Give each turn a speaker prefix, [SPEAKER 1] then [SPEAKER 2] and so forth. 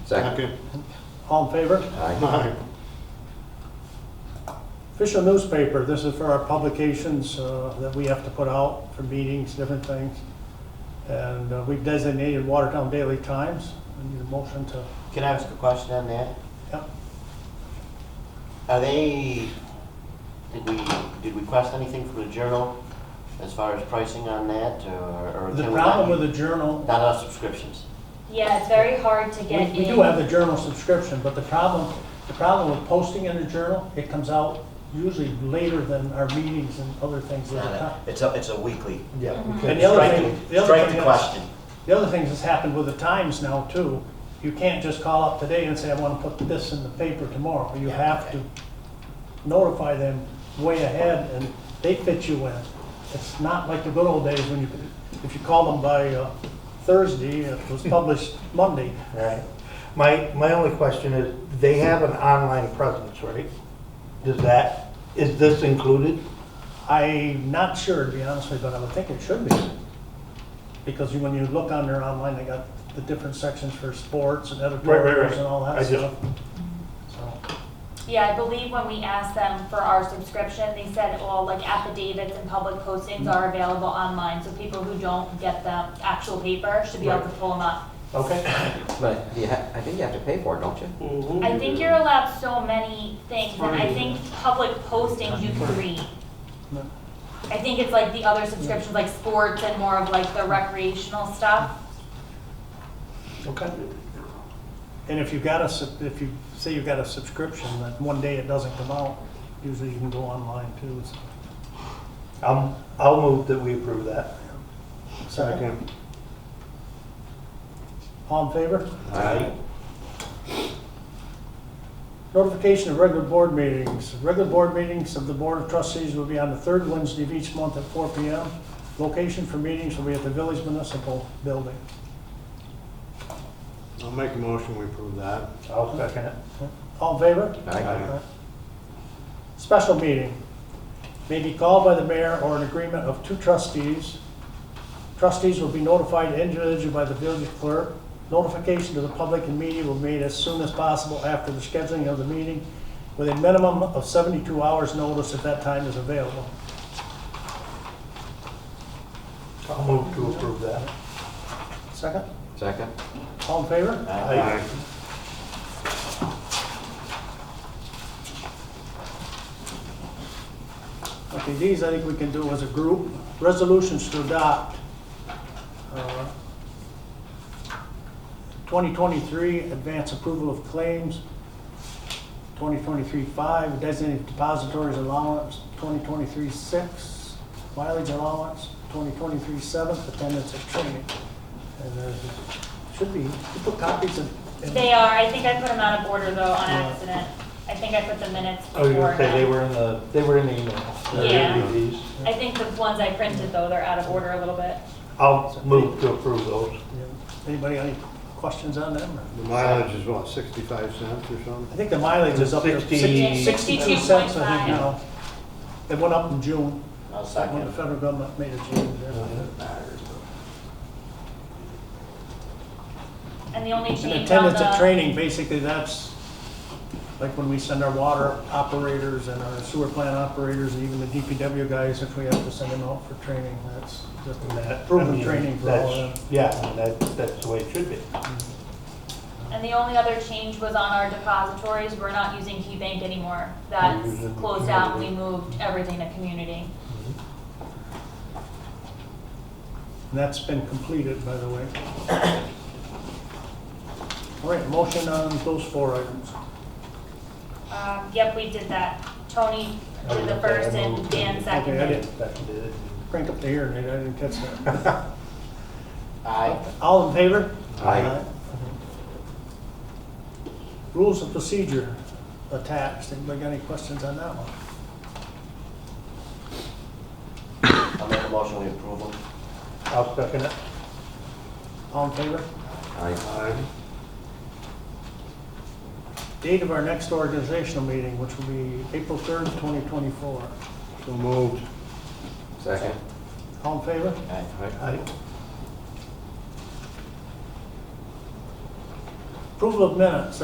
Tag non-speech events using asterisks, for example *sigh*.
[SPEAKER 1] Second.
[SPEAKER 2] All in favor?
[SPEAKER 1] Aye.
[SPEAKER 3] Aye.
[SPEAKER 2] Official newspaper, this is for our publications uh, that we have to put out for meetings, different things. And uh, we've designated Watertown Daily Times. I need a motion to,
[SPEAKER 4] Can I ask a question on that?
[SPEAKER 2] yeah.
[SPEAKER 4] Are they, did we, did we request anything from the journal as far as pricing on that, or? or
[SPEAKER 2] The
[SPEAKER 4] can we
[SPEAKER 2] problem
[SPEAKER 4] not-
[SPEAKER 2] with the Journal,
[SPEAKER 4] Not on subscriptions.
[SPEAKER 5] Yeah, it's very hard to
[SPEAKER 2] we
[SPEAKER 5] get in.
[SPEAKER 2] we do have the Journal subscription, but the problem, the problem with posting in the Journal, it comes out usually later than our meetings and other things at the time.
[SPEAKER 4] It's a, it's a weekly.
[SPEAKER 3] Yeah. we
[SPEAKER 2] And
[SPEAKER 3] can-
[SPEAKER 2] the other
[SPEAKER 4] Strike
[SPEAKER 2] thing-
[SPEAKER 4] the-
[SPEAKER 2] the other
[SPEAKER 4] Strike
[SPEAKER 2] thing
[SPEAKER 4] the
[SPEAKER 2] is-
[SPEAKER 4] question.
[SPEAKER 2] The other thing that's happened with the Times now too, you can't just call up today and say, I want to put this in the paper tomorrow. You have to notify them way ahead and they fit you in. It's not like the good old days when you, could- if you call them by uh, Thursday, it
[SPEAKER 3] *laughs*
[SPEAKER 2] was published Monday.
[SPEAKER 3] Right. My, my only question is, they have an online presence, right? Does that, is this included?
[SPEAKER 2] I'm not sure, to be honest with you, but I would think it should be. Because you- when you look on their online, they got the different sections for sports and editorials and all
[SPEAKER 3] I
[SPEAKER 2] that
[SPEAKER 3] just-
[SPEAKER 2] stuff. So,
[SPEAKER 5] Yeah, I believe when we asked them for our subscription, they said, well, like affidavits and public postings are available online, so people who don't get the actual paper should be able to pull them up.
[SPEAKER 3] Okay.
[SPEAKER 1] But you ha- I think you have to pay for it, don't you?
[SPEAKER 5] I think you're allowed so many things, and I think public postings you can read.
[SPEAKER 2] no.
[SPEAKER 5] I think it's like the other subscriptions, like sports and more of like the recreational stuff.
[SPEAKER 2] Okay. And if you've got a, sub- if you say you've got a subscription, that one day it doesn't come out, usually you can go online too. so-
[SPEAKER 3] I'm, I'll move that we approve that.
[SPEAKER 2] All in favor?
[SPEAKER 1] Aye.
[SPEAKER 2] Notification of regular board meetings. Regular board meetings of the Board of Trustees will be on the third Wednesday of each month at 4 PM. Location for meetings will be at the Village Municipal Building.
[SPEAKER 6] I'll make a motion, we approve that.
[SPEAKER 3] I'll second it.
[SPEAKER 2] All in favor?
[SPEAKER 1] Aye.
[SPEAKER 2] Special meeting may be called by the mayor or an agreement of two trustees. Trustees will be notified individually by the village clerk. Notification to the public and media will be made as soon as possible after the scheduling of the meeting with a minimum of 72 hours notice if that time is available.
[SPEAKER 3] I'll move to approve that.
[SPEAKER 2] Second?
[SPEAKER 1] Second.
[SPEAKER 2] All in favor?
[SPEAKER 3] Aye.
[SPEAKER 2] Okay, these I think we can do as a group. Resolutions to adopt. uh, 2023 advance approval of claims. 2023-5 designated depositories allowance. 2023-6 mileage allowance. 2023-7 attendance at training. And there's, should be, you put copies in. in-
[SPEAKER 5] They are, I think I put them out of order though on
[SPEAKER 2] Yeah. Oh,
[SPEAKER 5] accident. I think I put the minutes
[SPEAKER 3] I was
[SPEAKER 5] before.
[SPEAKER 3] gonna say, they
[SPEAKER 5] them.
[SPEAKER 3] were in the, they were in the email.
[SPEAKER 5] Yeah.
[SPEAKER 3] These.
[SPEAKER 5] I think the ones I printed though, they're out of order a little bit.
[SPEAKER 3] I'll move to approve those.
[SPEAKER 2] Anybody got any questions on them? or?
[SPEAKER 6] The mileage is what, 65 cents or
[SPEAKER 2] I
[SPEAKER 6] something?
[SPEAKER 2] think the mileage is up to
[SPEAKER 3] 60
[SPEAKER 2] six- 62 cents, I think,
[SPEAKER 5] 62.5.
[SPEAKER 2] now. It went up in June,
[SPEAKER 4] I'll
[SPEAKER 2] when the
[SPEAKER 4] second.
[SPEAKER 2] federal government made a change there.
[SPEAKER 5] And the only
[SPEAKER 2] And
[SPEAKER 5] change on
[SPEAKER 2] attendance at
[SPEAKER 5] the,
[SPEAKER 2] training, basically, that's like when we send our water operators and our sewer plant operators, and even the DPW guys, if we have to send them out for training, that's just
[SPEAKER 3] That- I
[SPEAKER 2] proven
[SPEAKER 3] mean,
[SPEAKER 2] training for all of
[SPEAKER 3] that's-
[SPEAKER 2] them.
[SPEAKER 3] Yeah, I mean, that, that's the way it should be.
[SPEAKER 5] and the only other change was on our depositories. We're not using KeyBank anymore. That's
[SPEAKER 3] We're using
[SPEAKER 5] closed out and we moved everything to community.
[SPEAKER 2] And that's been completed, by the way. *coughs* All right, motion on those four items.
[SPEAKER 5] Um, yep, we did that. Tony
[SPEAKER 3] I
[SPEAKER 5] did the
[SPEAKER 3] was gonna say, I
[SPEAKER 5] first and
[SPEAKER 3] moved.
[SPEAKER 5] Dan
[SPEAKER 2] Okay, I
[SPEAKER 5] seconded.
[SPEAKER 2] did.
[SPEAKER 3] Seconded it.
[SPEAKER 2] Crank up the hearing aid, I didn't catch that.
[SPEAKER 4] Aye.
[SPEAKER 2] All in favor?
[SPEAKER 1] Aye.
[SPEAKER 2] Rules of procedure attached. Anybody got any questions on that one?
[SPEAKER 4] I'll make a motion, we approve them.
[SPEAKER 3] I'll second it.
[SPEAKER 2] All in favor?
[SPEAKER 1] Aye.
[SPEAKER 6] Aye.
[SPEAKER 2] Date of our next organizational meeting, which will be April 3rd, 2024.
[SPEAKER 6] So moved.
[SPEAKER 1] Second.
[SPEAKER 2] All in favor?
[SPEAKER 4] Aye.
[SPEAKER 1] Aye.
[SPEAKER 3] Aye.
[SPEAKER 2] Approval of minutes,